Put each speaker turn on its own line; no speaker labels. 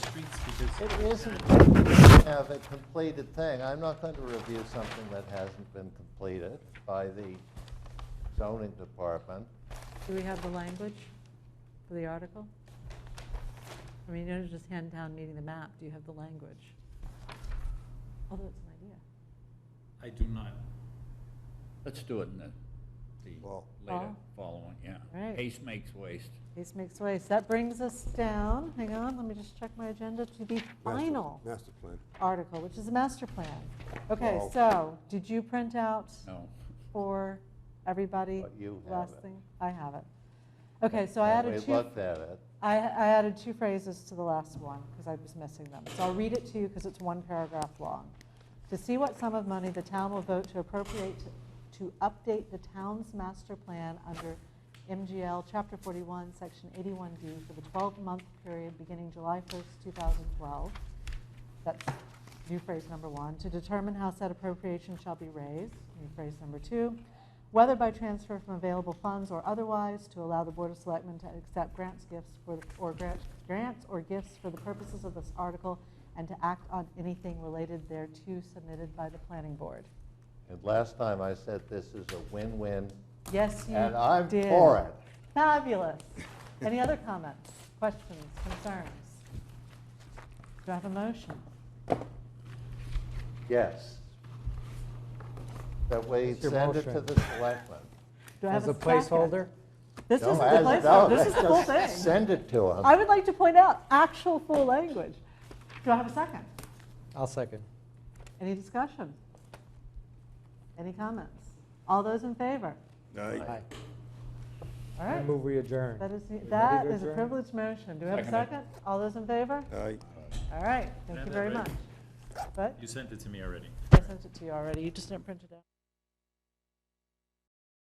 It isn't have a completed thing. I'm not going to review something that hasn't been completed by the zoning department.
Do we have the language for the article? I mean, you don't just hand town meeting the map, do you have the language? Although it's an idea.
I do not.
Let's do it in the, the
Well-
later
Fall?
following, yeah.
Right.
Haste makes waste.
Case makes waste. That brings us down, hang on, let me just check my agenda, to the
Master-
final
Master plan.
article, which is the master plan. Okay,
Wow.
so, did you print out
No,
for everybody?
But you have
last
it.
thing? I have it. Okay, so I added
We
two,
looked at it.
I I added two phrases to the last one, because I was missing them. So I'll read it to you, because it's one paragraph long. To see what sum of money the town will vote to appropriate to- to update the town's master plan under MGL Chapter 41, Section 81D for the 12-month period beginning July 1st, 2012. That's new phrase number one, to determine how said appropriation shall be raised, new phrase number two, whether by transfer from available funds or otherwise, to allow the Board of Selectmen to accept grants, gifts, for the- or grant- grants or gifts for the purposes of this article, and to act on anything related thereto submitted by the planning board.
And last time I said this is a win-win,
Yes, you did.
and I'm for it.
Fabulous. Any other comments, questions, concerns? Do I have a motion?
Yes. That we
That's your
send it to
motion.
the selectmen.
Do I have
As a
second?
placeholder?
This
No,
is the
as- no,
placeholder, this is the whole
just
thing.
Send it to
I
them.
would like to point out actual full language. Do I have a second?
I'll second.
Any discussion? Any comments? All those in favor?
Aye.
All
I
right.
move we adjourn.
That is,
We ready
that
to
is a
adjourn?
privileged motion. Do we have a
Second it.
second? All those in favor?
Aye.
All right, thank
Yeah,
you
they're
very much.
ready.
But
You sent it to me already.
I sent it to you already, you just didn't print it out.